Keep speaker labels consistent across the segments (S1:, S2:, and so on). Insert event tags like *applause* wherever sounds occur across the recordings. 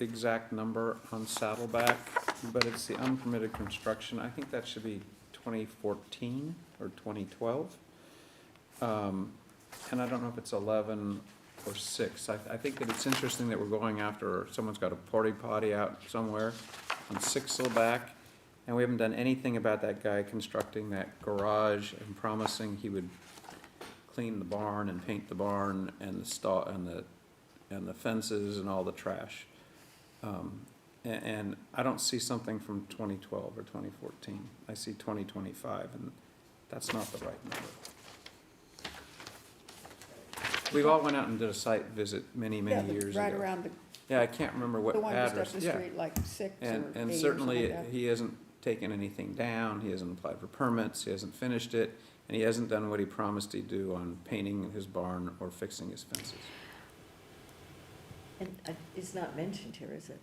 S1: exact number on Saddleback, but it's the unpermitted construction. I think that should be twenty fourteen or twenty twelve. Um, And I don't know if it's eleven or six. I, I think that it's interesting that we're going after, someone's got a porta potty out somewhere on Sixelback, and we haven't done anything about that guy constructing that garage and promising he would clean the barn and paint the barn and the stall, and the, and the fences and all the trash. Um, a- And, I don't see something from twenty twelve or twenty fourteen. I see twenty twenty-five, and that's not the right number. We've all went out and did a site visit many,
S2: Yeah,
S1: many
S2: the-
S1: years
S2: Right
S1: ago.
S2: around
S1: Yeah, I can't remember
S2: the,
S1: what
S2: the one just up
S1: address,
S2: the
S1: yeah.
S2: street, like six or eight
S1: And, and
S2: or
S1: certainly,
S2: something like that.
S1: he hasn't taken anything down, he hasn't applied for permits, he hasn't finished it, and he hasn't done what he promised he'd do on painting his barn or fixing his fences.
S3: And uh, it's not mentioned here, is it?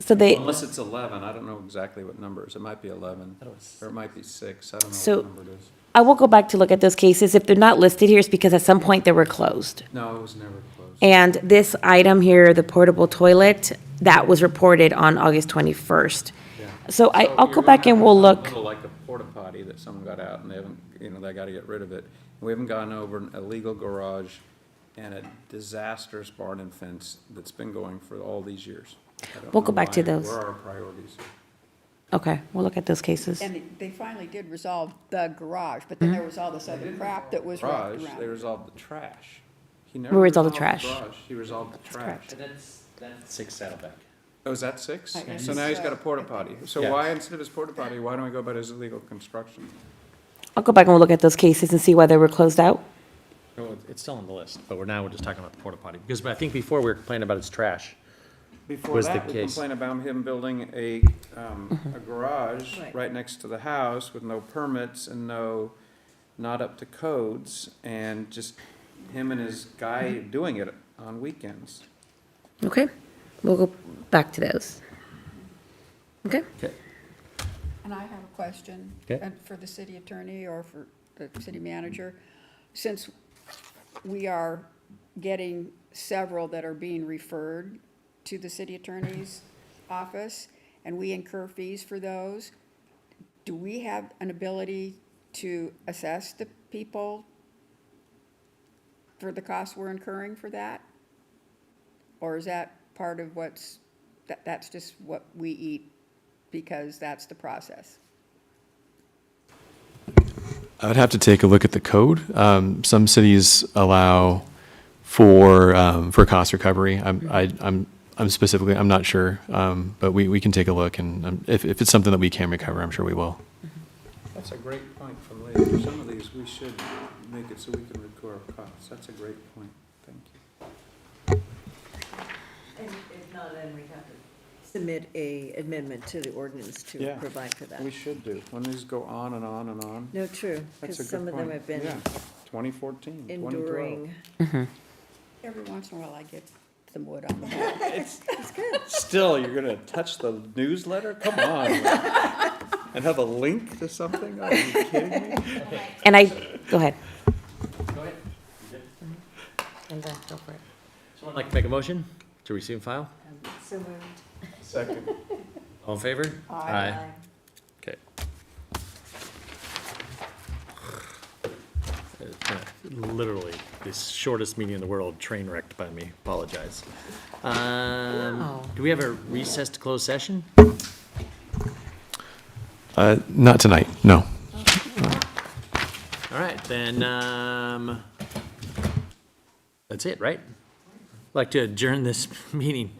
S4: So they,
S1: Unless it's eleven, I don't know exactly what numbers, it might be eleven, or it might be six, I don't know
S4: So-
S1: what number it is.
S4: I will go back to look at those cases. If they're not listed here, it's because at some point they were closed.
S1: No, it was never closed.
S4: And this item here, the portable toilet, that was reported on August 21st.
S1: Yeah.
S4: So
S1: So
S4: I, I'll
S1: you're
S4: go
S1: gonna
S4: back
S1: have
S4: and
S1: a
S4: we'll look.
S1: Little like a porta potty that someone got out and they haven't, you know, they gotta get rid of it. We haven't gone over an illegal garage and a disastrous barn and fence that's been going for all these years. I don't
S4: We'll go
S1: know
S4: back to
S1: why.
S4: those.
S1: Where are our priorities?
S4: Okay, we'll look at those cases.
S2: And it- they finally did resolve the garage, but then there was all this other crap that was wrapped
S1: Garage,
S2: around.
S1: they
S2: it.
S1: resolved the trash. He never
S4: We resolved the
S1: resolved
S4: trash.
S1: garage. He resolved the trash.
S4: correct.
S5: that's, that's. Six Saddleback.
S1: Oh, is that six?
S2: I guess
S1: So now he's
S2: so.
S1: got a porta potty. So
S5: Yeah.
S1: why, instead of his porta potty, why don't we go about his illegal construction?
S4: I'll go back and we'll look at those cases and see why they were closed out.
S5: It's still on the list, but we're now, we're just talking about the porta potty, because I think before we were complaining about its trash.
S1: Before
S5: was the
S1: that, we
S5: case.
S1: complained about him building a, um, a garage
S3: Mm-hmm. Right.
S1: right next to the house with no permits and no, not up to codes, and just him and his guy
S3: Mm-hmm.
S1: doing it on weekends.
S4: Okay, we'll go back to those. Okay?
S2: And I have a question.
S5: Okay.
S2: and For the city attorney or for the city manager. Since we are getting several that are being referred to the city attorney's office, and we incur fees for those, do we have an ability to assess the people for the costs we're incurring for that? Or is that part of what's, that, that's just what we eat because that's the process?
S6: I would have to take a look at the code. Um, some cities allow for um, for cost recovery. I'm, I, I'm I'm specifically I'm not sure, um, but we, we can take a look and um, if if it's something that we can recover, I'm sure we will.
S1: That's a great point from Leah. For some of these, we should make it so we can record our costs. That's a great point. Thank you.
S3: And if not, then we have to. Submit a amendment to the ordinance to
S1: Yeah.
S3: provide for that.
S1: We should do. When these go on and on and on,
S3: No, true,
S1: that's a good
S3: because
S1: point.
S3: some of them have been
S1: Yeah. 2014, 2012.
S3: enduring.
S2: Every once in a while, I get some wood on the head.
S1: Still, you're gonna touch the newsletter? Come on. And have a link to something? Are you kidding me?
S4: And I, go ahead. And then go for it.
S5: Someone like to make a motion to receive and file?
S3: So moved.
S1: Second.
S5: All in favor? Aye. Okay. Literally, the shortest meeting in the world, train wrecked by me, apologize. Um, do we have a recess to close session?
S6: Uh, not tonight, no.
S5: All right, then, um, that's it, right? Like to adjourn this *laughs* meeting.